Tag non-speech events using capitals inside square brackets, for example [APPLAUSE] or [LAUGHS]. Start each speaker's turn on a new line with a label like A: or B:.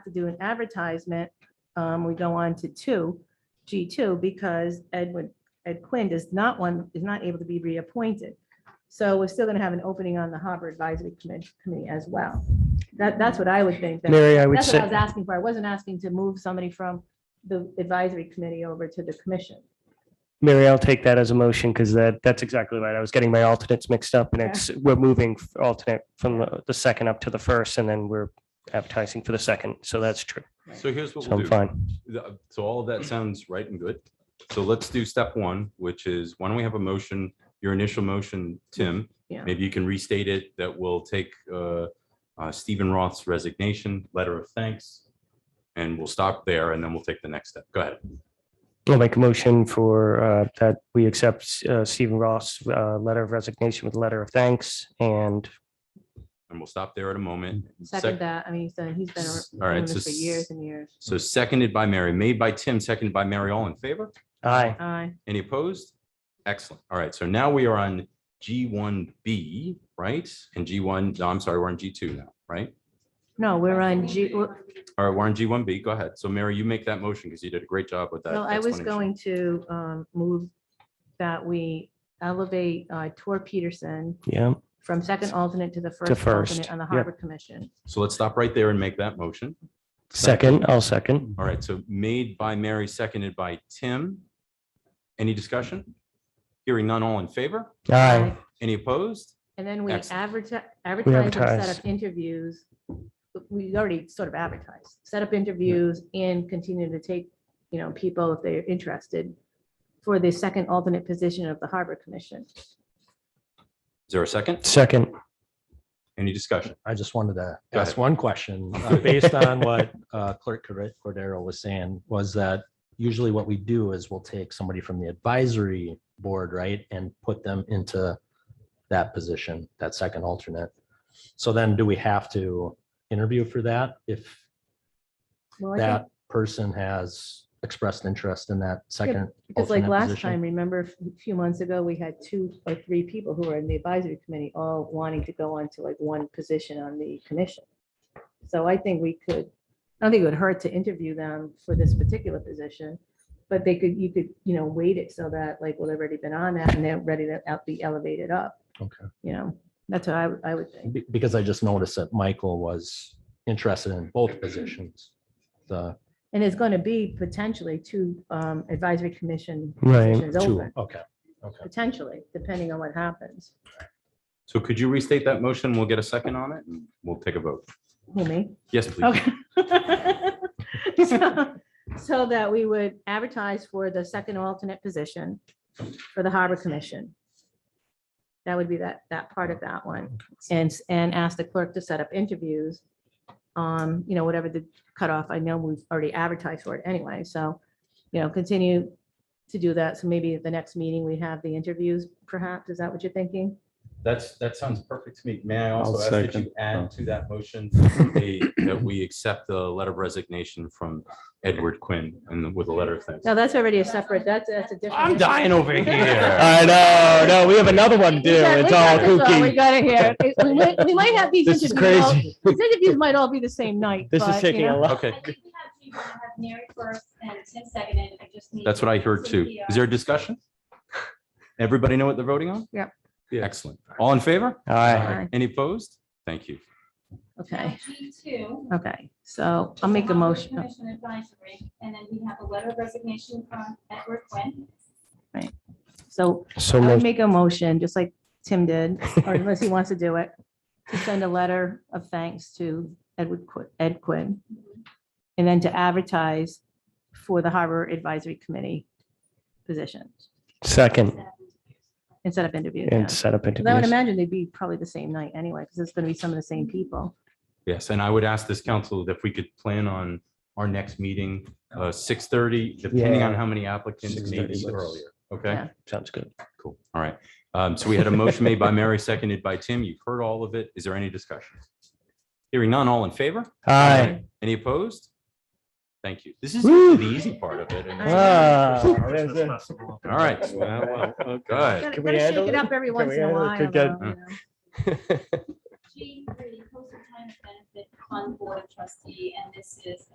A: to do an advertisement, um, we go on to two, G two, because Edwin, Ed Quinn does not one, is not able to be reappointed. So we're still gonna have an opening on the Harbor Advisory Commi- Committee as well. That, that's what I would think. that-
B: Mary, I would
A: That's what I was
B: say,
A: asking for. I wasn't asking to move somebody from the advisory committee over to the commission.
B: Mary, I'll take that as a motion because that, that's exactly right. I was getting my alternates mixed up and
A: Okay.
B: it's, we're moving alternate from the- the second up to the first and then we're advertising for the second. So that's true.
C: So here's what
B: So
C: we'll
B: I'm
C: do.
B: fine.
C: The- So all of that sounds right and good. So let's do step one, which is why don't we have a motion, your initial motion, Tim?
A: Yeah.
C: Maybe you can restate it that we'll take uh, uh, Stephen Roth's resignation, letter of thanks. And we'll stop there and then we'll take the next step. Go ahead.
B: I'll make a motion for uh, that we accept uh, Stephen Ross' uh, letter of resignation with letter of thanks and
C: And we'll stop there at a moment.
A: Second that, I mean, he's done, he's been
C: All right,
A: doing this
C: so
A: for years and years.
C: So seconded by Mary, made by Tim, seconded by Mary. All in favor?
B: aye.
A: Aye,
C: Any opposed? Excellent. All right. So now we are on G1B, right? And G1, no, I'm sorry, we're on G2 now, right?
A: no, we're on G, well,
C: All right, we're on G1B. Go ahead. So Mary, you make that motion because you did a great job with that.
A: no, I was
C: explanation.
A: going to um, move that we elevate uh, Tor Peterson
B: Yeah,
A: from second alternate to the first
B: first,
A: alternate on the
B: yep.
A: Harbor Commission.
C: So let's stop right there and make that motion.
B: second, I'll second.
C: All right. So made by Mary, seconded by Tim. Any discussion? Hearing none, all in favor?
B: Aye.
C: Any opposed?
A: And then we
C: Excellent.
A: advertise, advertise a set
B: advertise.
A: of interviews. We already sort of advertised, set up interviews and continue to take, you know, people if they're interested for the second alternate position of the Harbor Commission.
C: Is there a second?
B: Second,
C: Any discussion?
D: I just wanted to
C: Go
D: ask
C: ahead.
D: one question,
C: [LAUGHS]
D: uh, based on what uh, Clerk Corre- Cordero was saying, was that usually what we do is we'll take somebody from the advisory board, right, and put them into that position, that second alternate. So then do we have to interview for that if
A: Well, I think,
D: that person has expressed interest in that second?
A: because like
D: alternate
A: last
D: position?
A: time, remember a f- few months ago, we had two or three people who were in the advisory committee, all wanting to go on to like one position on the commission. So I think we could, I don't think it would hurt to interview them for this particular position. But they could, you could, you know, weight it so that like, well, they've already been on that and they're ready to out- be elevated up.
D: Okay.
A: You know, that's what I, would- I would think.
D: Be- Because I just noticed that Michael was interested in both positions, the
A: And there's going to be potentially two um, advisory commission
B: Right.
A: positions
D: two,
A: open,
D: okay, okay.
A: potentially, depending on what happens.
C: So could you restate that motion? We'll get a second on it and we'll take a vote.
A: Who, me?
C: Yes, please.
A: Okay. [LAUGHS] So- So that we would advertise for the second alternate position for the Harbor Commission. That would be that, that part of that one. And, s- and ask the clerk to set up interviews. Um, you know, whatever the cutoff, I know we've already advertised for it anyway, so, you know, continue to do that. So maybe at the next meeting, we have the interviews perhaps. Is that what you're thinking?
C: That's, that sounds perfect to me. May I
E: I'll
C: also ask that you
E: second. Oh.
C: add to that motion a- that we accept the letter of resignation from Edward Quinn and with a letter of thanks?
A: No, that's already a separate, that's, that's a different.
C: I'm dying over here.
B: [LAUGHS] I know, no, we have another one
A: We
B: too.
A: got- we
B: It's all
A: got this one. We
B: kooky.
A: got it here. It- We might- we might have these
B: [LAUGHS] This is
A: interviews, all-
B: crazy.
A: these interviews might all be the same night.
B: This
A: but,
B: is
A: you
B: taking a
A: know,
B: lot.
C: Okay,
F: I think we have to have Mary first and Tim seconded. I just need.
C: that's what I heard too. Is there a discussion? Everybody know what they're voting on?
A: Yep.
C: Excellent. All in favor?
B: Aye.
A: Aye.
C: Any opposed? Thank you.
A: Okay,
F: Two.
A: okay. So I'll make a motion.
F: Commission advisory, and then we have a letter of resignation from Edward Quinn.
A: So
B: So
A: I would
B: moved.
A: make a motion, just like Tim did,
B: [LAUGHS]
A: or unless he wants to do it, to send a letter of thanks to Edward, Qui- Ed Quinn. And then to advertise for the Harbor Advisory Committee positions
B: second
A: instead of interviews. yeah.
B: and set up
A: Because I would
B: interviews.
A: imagine they'd be probably the same night anyway, because it's going to be some of the same people.
C: Yes, and I would ask this council if we could plan on our next meeting, uh, six thirty, depending
B: Yeah.
C: on how many applicants, maybe
B: 6:30 works.
C: earlier. Okay?
A: Yeah.
B: Sounds good.
C: Cool. All right. Um, so we had a motion made by Mary, seconded by Tim. You've heard all of it. Is there any discussion? Hearing none, all in favor?
B: Aye.
C: Any opposed? Thank you. This is
B: Woo.
C: the easy part of it. and it's-
B: Ah, there's a-
D: All
C: All right. Good.
A: Gotta
B: we
A: gotta shake
B: handle
A: it
B: it?
A: up every
B: Can
A: once
B: we
A: in a
B: handle it?
A: while.
B: Could
C: [LAUGHS]
A: though,
B: get-
A: you know.
F: G three, postal time of benefit fund board trustee, and this is